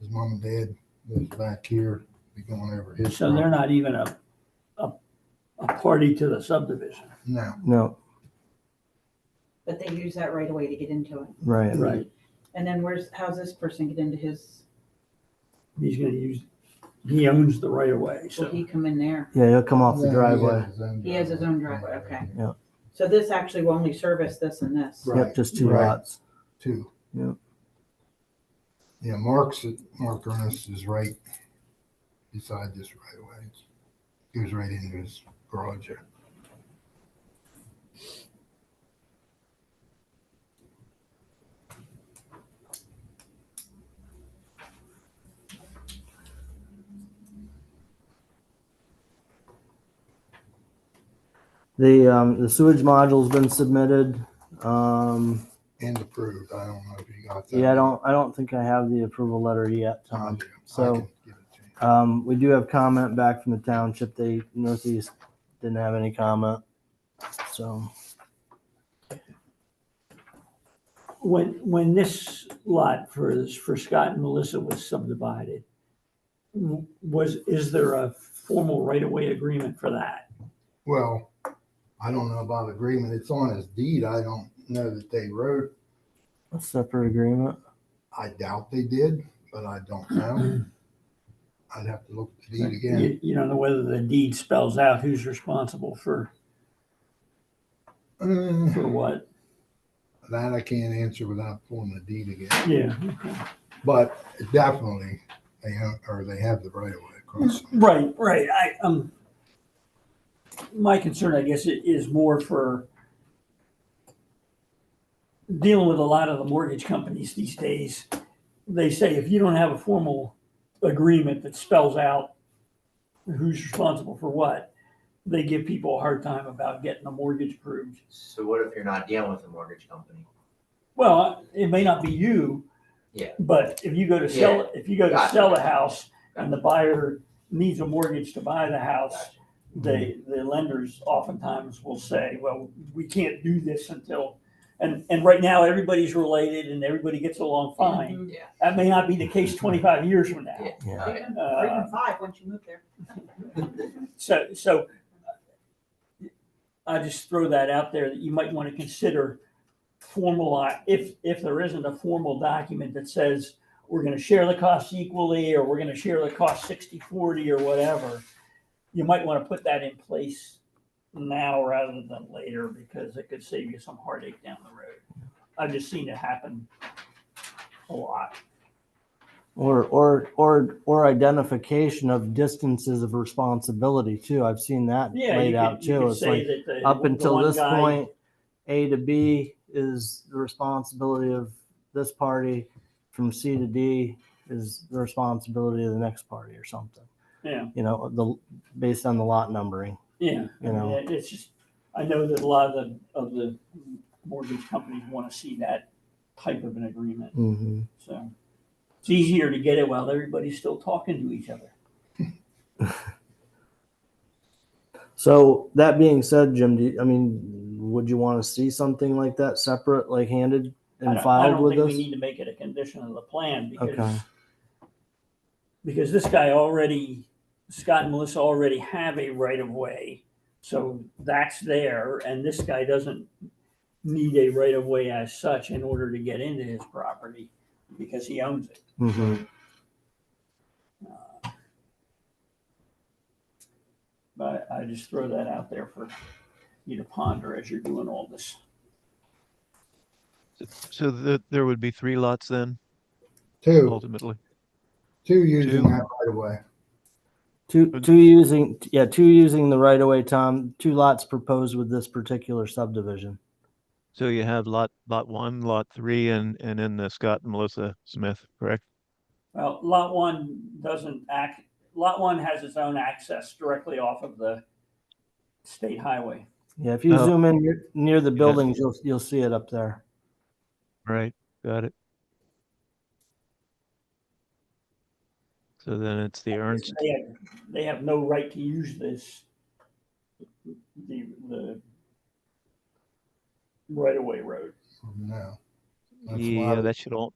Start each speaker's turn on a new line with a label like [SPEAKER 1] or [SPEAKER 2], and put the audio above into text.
[SPEAKER 1] his mom and dad lives back here, be going over his.
[SPEAKER 2] So they're
[SPEAKER 1] property.
[SPEAKER 2] not even a, a, a party to the subdivision.
[SPEAKER 1] No,
[SPEAKER 3] No,
[SPEAKER 4] but they use that right away to get into it.
[SPEAKER 3] right.
[SPEAKER 2] Right.
[SPEAKER 4] And then where's, how's this person get into his,
[SPEAKER 2] He's gonna use, he owns the right of way,
[SPEAKER 4] will
[SPEAKER 2] so.
[SPEAKER 4] he come in there?
[SPEAKER 3] Yeah, he'll come off the
[SPEAKER 1] Yeah, he
[SPEAKER 3] driveway.
[SPEAKER 1] has his own
[SPEAKER 4] He has his own driveway, okay. So this actually will only service this and this.
[SPEAKER 2] Right.
[SPEAKER 3] Yep, just two
[SPEAKER 1] Right.
[SPEAKER 3] lots.
[SPEAKER 1] Two.
[SPEAKER 3] Yep.
[SPEAKER 1] Yeah, Mark's, Mark Ernest is right beside this right away. He was right into his garage there.
[SPEAKER 3] The, um, the sewage module's been submitted. Um,
[SPEAKER 1] and approved. I don't know if you got that.
[SPEAKER 3] yeah, I don't, I don't think I have the approval letter yet,
[SPEAKER 1] I
[SPEAKER 3] Tom.
[SPEAKER 1] do. I
[SPEAKER 3] So-
[SPEAKER 1] can give it to you.
[SPEAKER 3] Um, we do have comment back from the township. They, Northeast didn't have any comment. So,
[SPEAKER 2] When, when this lot for, for Scott and Melissa was subdivided, w- was, is there a formal right of way agreement for that?
[SPEAKER 1] Well, I don't know about agreement. It's on his deed. I don't know that they wrote.
[SPEAKER 3] a separate agreement.
[SPEAKER 1] I doubt they did, but I don't know. I'd have to look at the deed again.
[SPEAKER 2] You, you don't know whether the deed spells out who's responsible for,
[SPEAKER 1] Uh,
[SPEAKER 2] for what?
[SPEAKER 1] That I can't answer without pulling the deed again.
[SPEAKER 2] Yeah.
[SPEAKER 1] But definitely, they have, or they have the right of way across.
[SPEAKER 2] Right, right. I, um, my concern, I guess, i- is more for dealing with a lot of the mortgage companies these days. They say if you don't have a formal agreement that spells out who's responsible for what, they give people a hard time about getting a mortgage approved.
[SPEAKER 5] So what if you're not dealing with a mortgage company?
[SPEAKER 2] Well, it may not be you.
[SPEAKER 5] Yeah.
[SPEAKER 2] But if you go to sell, if you go to
[SPEAKER 5] Gotcha.
[SPEAKER 2] sell a house and the buyer needs a mortgage to buy the house, they, the lenders oftentimes will say, well, we can't do this until, and, and right now, everybody's related and everybody gets along fine.
[SPEAKER 4] Mhm.
[SPEAKER 5] Yeah.
[SPEAKER 2] That may not be the case twenty-five years from now.
[SPEAKER 3] Yeah.
[SPEAKER 4] Or even- or
[SPEAKER 2] Uh,
[SPEAKER 4] even five, once you move there.
[SPEAKER 2] So, so uh, I just throw that out there that you might want to consider formal, if, if there isn't a formal document that says we're going to share the costs equally, or we're going to share the cost 60, 40, or whatever, you might want to put that in place now rather than later because it could save you some heartache down the road. I've just seen it happen a lot.
[SPEAKER 3] Or, or, or, or identification of distances of responsibility too. I've seen that
[SPEAKER 2] Yeah, you
[SPEAKER 3] laid out
[SPEAKER 2] could, you
[SPEAKER 3] too.
[SPEAKER 2] could
[SPEAKER 3] It's like,
[SPEAKER 2] say that the.
[SPEAKER 3] up
[SPEAKER 2] the
[SPEAKER 3] until
[SPEAKER 2] one
[SPEAKER 3] this
[SPEAKER 2] guy-
[SPEAKER 3] point, A to B is the responsibility of this party. From C to D is the responsibility of the next party or something.
[SPEAKER 2] Yeah.
[SPEAKER 3] You know, the, based on the lot numbering.
[SPEAKER 2] Yeah, I
[SPEAKER 3] You
[SPEAKER 2] mean,
[SPEAKER 3] know.
[SPEAKER 2] it- it's just, I know that a lot of the, of the mortgage companies want to see that type of an agreement,
[SPEAKER 3] Mm-hmm.
[SPEAKER 2] so. It's easier to get it while everybody's still talking to each other.
[SPEAKER 3] So that being said, Jim, do you, I mean, would you want to see something like that separate, like handed
[SPEAKER 2] I don't-
[SPEAKER 3] and filed
[SPEAKER 2] I
[SPEAKER 3] with
[SPEAKER 2] don't think
[SPEAKER 3] us?
[SPEAKER 2] we need to make it a condition of the plan
[SPEAKER 3] Okay.
[SPEAKER 2] because, because this guy already, Scott and Melissa already have a right of way. So that's there and this guy doesn't need a right of way as such in order to get into his property because he owns it.
[SPEAKER 3] hmm
[SPEAKER 2] But I just throw that out there for you to ponder as you're doing all this.
[SPEAKER 6] So that there would be three lots then,
[SPEAKER 1] Two,
[SPEAKER 6] ultimately.
[SPEAKER 1] two using
[SPEAKER 6] Two.
[SPEAKER 1] that right of way.
[SPEAKER 3] Two, two using, yeah, two using the right of way, Tom, two lots proposed with this particular subdivision.
[SPEAKER 6] So you have lot, lot one, lot three, and, and then the Scott and Melissa Smith, correct?
[SPEAKER 2] Well, lot one doesn't act, lot one has its own access directly off of the state highway.
[SPEAKER 3] Yeah, if you
[SPEAKER 6] Oh.
[SPEAKER 3] zoom in near- near the buildings, you'll, you'll see it up there.
[SPEAKER 6] Right, got it. So then it's the Ernst,
[SPEAKER 2] They have, they have no right to use this. The, the right-of-way road.
[SPEAKER 1] Oh, No. That's why
[SPEAKER 6] yeah, that should all,